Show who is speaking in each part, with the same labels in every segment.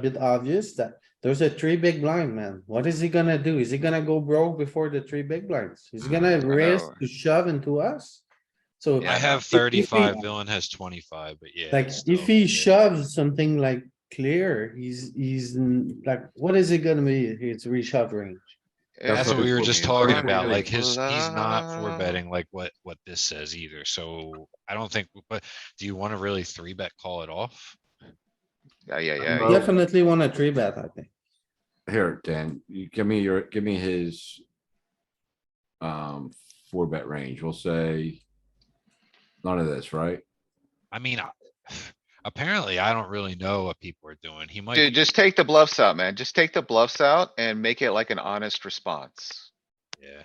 Speaker 1: bit obvious that there's a three big blind, man. What is he gonna do? Is he gonna go broke before the three big blinds? He's gonna
Speaker 2: Mm, I
Speaker 1: risk
Speaker 2: know.
Speaker 1: to shove into us? So
Speaker 2: I have
Speaker 1: if he-
Speaker 2: thirty-five, Dylan has twenty-five, but yeah.
Speaker 1: like,
Speaker 2: it's
Speaker 1: if
Speaker 2: still-
Speaker 1: he
Speaker 2: yeah.
Speaker 1: shoves something like clear, he's, he's n- like, what is it gonna be? It's reshove range.
Speaker 2: That's what we were just talking about, like his, he's not
Speaker 3: for
Speaker 2: four betting like what, what this says either, so I don't think, but do you wanna really three bet call it off?
Speaker 3: Yeah, yeah,
Speaker 2: Uh,
Speaker 3: yeah.
Speaker 4: Oh.
Speaker 1: Definitely wanna three bet, I think.
Speaker 4: Here, Dan, you give me your, give me his. Um, four bet range, we'll say. None of this, right?
Speaker 2: I mean, I- apparently I don't really know what people are doing, he might,
Speaker 3: Dude, just take the bluffs out, man. Just take the bluffs out and make it like an honest response.
Speaker 2: yeah.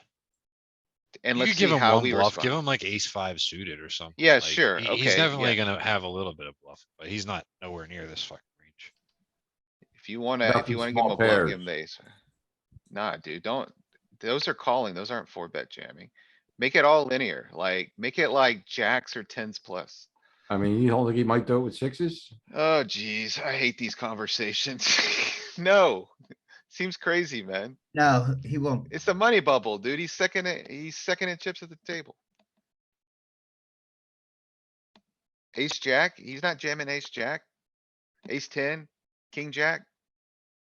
Speaker 3: And
Speaker 2: You
Speaker 3: let's
Speaker 2: could
Speaker 3: see
Speaker 2: give him
Speaker 3: how
Speaker 2: one
Speaker 3: we
Speaker 2: bluff, give
Speaker 3: respond.
Speaker 2: him like ace five suited or something.
Speaker 3: Yeah,
Speaker 2: like,
Speaker 3: sure,
Speaker 2: he- He's
Speaker 3: okay,
Speaker 2: definitely gonna have a little bit of bluff, but he's not nowhere near this fucking range.
Speaker 3: If you wanna,
Speaker 4: About
Speaker 3: if you
Speaker 4: some
Speaker 3: wanna give him
Speaker 4: small
Speaker 3: a bluff, give
Speaker 4: pairs.
Speaker 3: him the ace. Nah, dude, don't. Those are calling. Those aren't four bet jamming. Make it all linear, like, make it like jacks or tens plus.
Speaker 4: I mean, you don't think he might do it with sixes?
Speaker 3: Oh geez, I hate these conversations. No, seems crazy, man.
Speaker 5: No, he won't.
Speaker 3: It's the money bubble, dude. He's second, at- he's second in chips at the table. Ace jack, he's not jamming ace jack. Ace ten, king jack.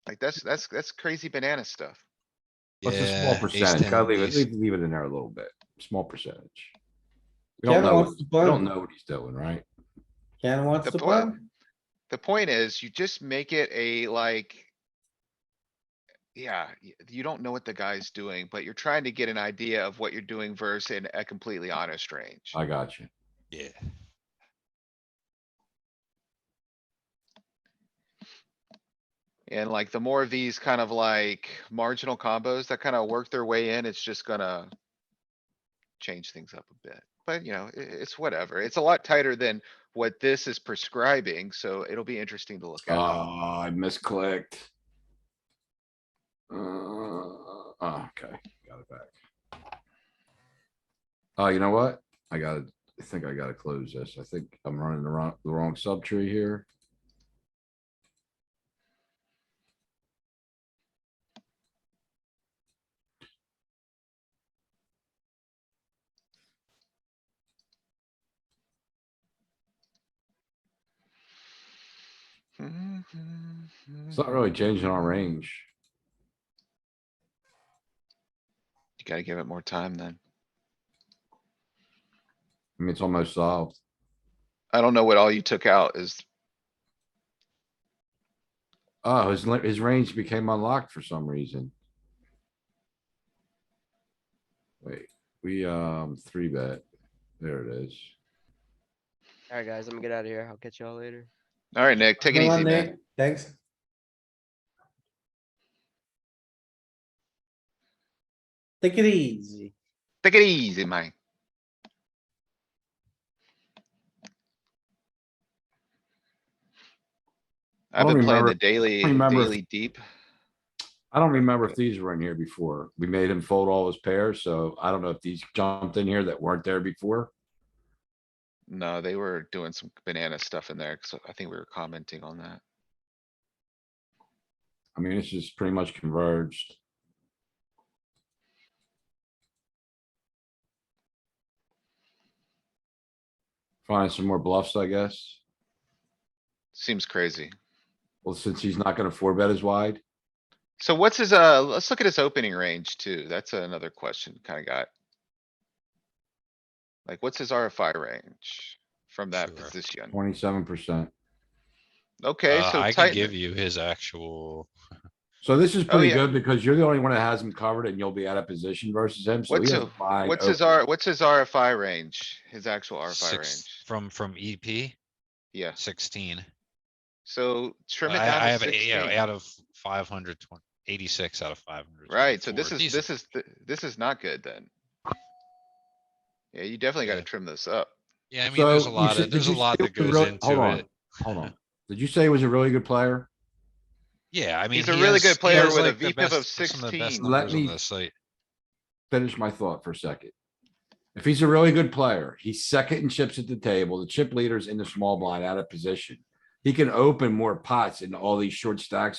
Speaker 3: Like that's, that's, that's crazy banana stuff.
Speaker 4: What's a
Speaker 2: Yeah,
Speaker 4: small
Speaker 2: ace
Speaker 4: percentage?
Speaker 2: 10,
Speaker 4: Gotta leave it,
Speaker 2: ace-
Speaker 4: leave, leave it in there a little bit, small percentage. We
Speaker 1: Ken
Speaker 4: don't know,
Speaker 1: wants
Speaker 4: what-
Speaker 1: to
Speaker 4: we don't
Speaker 1: punt.
Speaker 4: know what he's doing, right?
Speaker 1: Ken wants to
Speaker 3: The point,
Speaker 1: play?
Speaker 3: the point is you just make it a like. Yeah, y- you don't know what the guy's doing, but you're trying to get an idea of what you're doing versus in a completely honest range.
Speaker 4: I got you.
Speaker 2: Yeah,
Speaker 3: And like the more of these kind of like marginal combos that kind of work their way in, it's just gonna. Change things up a bit, but you know, i- it's whatever. It's a lot tighter than what this is prescribing, so it'll be interesting to look
Speaker 4: Oh,
Speaker 3: at.
Speaker 4: I misclicked. Uh, ah, okay, got it back. Oh, you know what? I gotta, I think I gotta close this. I think I'm running the wrong, the wrong subtree here.
Speaker 3: Mm-hmm.
Speaker 4: It's not really changing our range.
Speaker 3: You gotta give it more time then.
Speaker 4: I mean, it's almost solved.
Speaker 3: I don't know what all you took out is,
Speaker 4: Oh, his, li- his range became unlocked for some reason. Wait, we, um, three bet. There it is.
Speaker 6: Alright, guys, I'm gonna get out of here. I'll catch y'all later.
Speaker 3: alright, Nick, take it
Speaker 1: Come on,
Speaker 3: easy, man.
Speaker 1: Nick. Thanks. Take it easy.
Speaker 3: Take it easy, man. I've
Speaker 4: don't
Speaker 3: been playing
Speaker 4: remember-
Speaker 3: the daily,
Speaker 4: remember if-
Speaker 3: daily deep.
Speaker 4: I don't remember if these were in here before. We made him fold all his pairs, so I don't know if these jumped in here that weren't there before.
Speaker 3: No, they were doing some banana stuff in there, so I think we were commenting on that.
Speaker 4: I mean, this is pretty much converged. Find some more bluffs, I guess.
Speaker 3: Seems crazy.
Speaker 4: Well, since he's not gonna four bet as wide,
Speaker 3: So what's his, uh, let's look at his opening range too. That's another question kinda got. Like, what's his RFI range from that
Speaker 2: Sure.
Speaker 3: position?
Speaker 4: twenty-seven percent.
Speaker 3: Okay,
Speaker 2: uh,
Speaker 3: so
Speaker 2: I can
Speaker 3: tighten
Speaker 2: give
Speaker 3: it.
Speaker 2: you his actual,
Speaker 4: So this is pretty
Speaker 3: Oh, yeah.
Speaker 4: good because you're the only one that has him covered and you'll be out of position versus him, so he
Speaker 3: What's
Speaker 4: has
Speaker 3: a-
Speaker 4: wide
Speaker 3: What's his
Speaker 4: open.
Speaker 3: R, what's his RFI range? His actual RFI
Speaker 2: six,
Speaker 3: range?
Speaker 2: from, from E EP,
Speaker 3: Yeah,
Speaker 2: sixteen.
Speaker 3: so trim it
Speaker 2: I, I
Speaker 3: down
Speaker 2: have,
Speaker 3: to
Speaker 2: a- yeah,
Speaker 3: sixteen.
Speaker 2: out of five hundred twenty, eighty-six out of five hundred.
Speaker 3: Right, so this is, this is, th- this is not good then. Yeah, you definitely gotta
Speaker 2: Yeah.
Speaker 3: trim this up.
Speaker 2: Yeah, I mean, there's a
Speaker 4: So you
Speaker 2: lot
Speaker 4: said-
Speaker 2: of,
Speaker 4: did
Speaker 2: there's a
Speaker 4: you
Speaker 2: lot
Speaker 4: say it
Speaker 2: that
Speaker 4: was
Speaker 2: goes
Speaker 4: real- hold
Speaker 2: into
Speaker 4: on,
Speaker 2: it.
Speaker 4: Hold on. Did you say he was a really good player?
Speaker 2: Yeah, I mean.
Speaker 3: He's a
Speaker 2: he
Speaker 3: really
Speaker 2: has-
Speaker 3: good
Speaker 2: he
Speaker 3: player
Speaker 2: has,
Speaker 3: with a
Speaker 2: like, the
Speaker 3: VPIP
Speaker 2: best-
Speaker 3: of
Speaker 2: some of the best
Speaker 3: 16.
Speaker 4: Let
Speaker 2: numbers on
Speaker 4: me-
Speaker 2: the site.
Speaker 4: finish my thought for a second. If he's a really good player, he's second in chips at the table, the chip leader's in the small blind out of position. he can open more pots in all these short stacks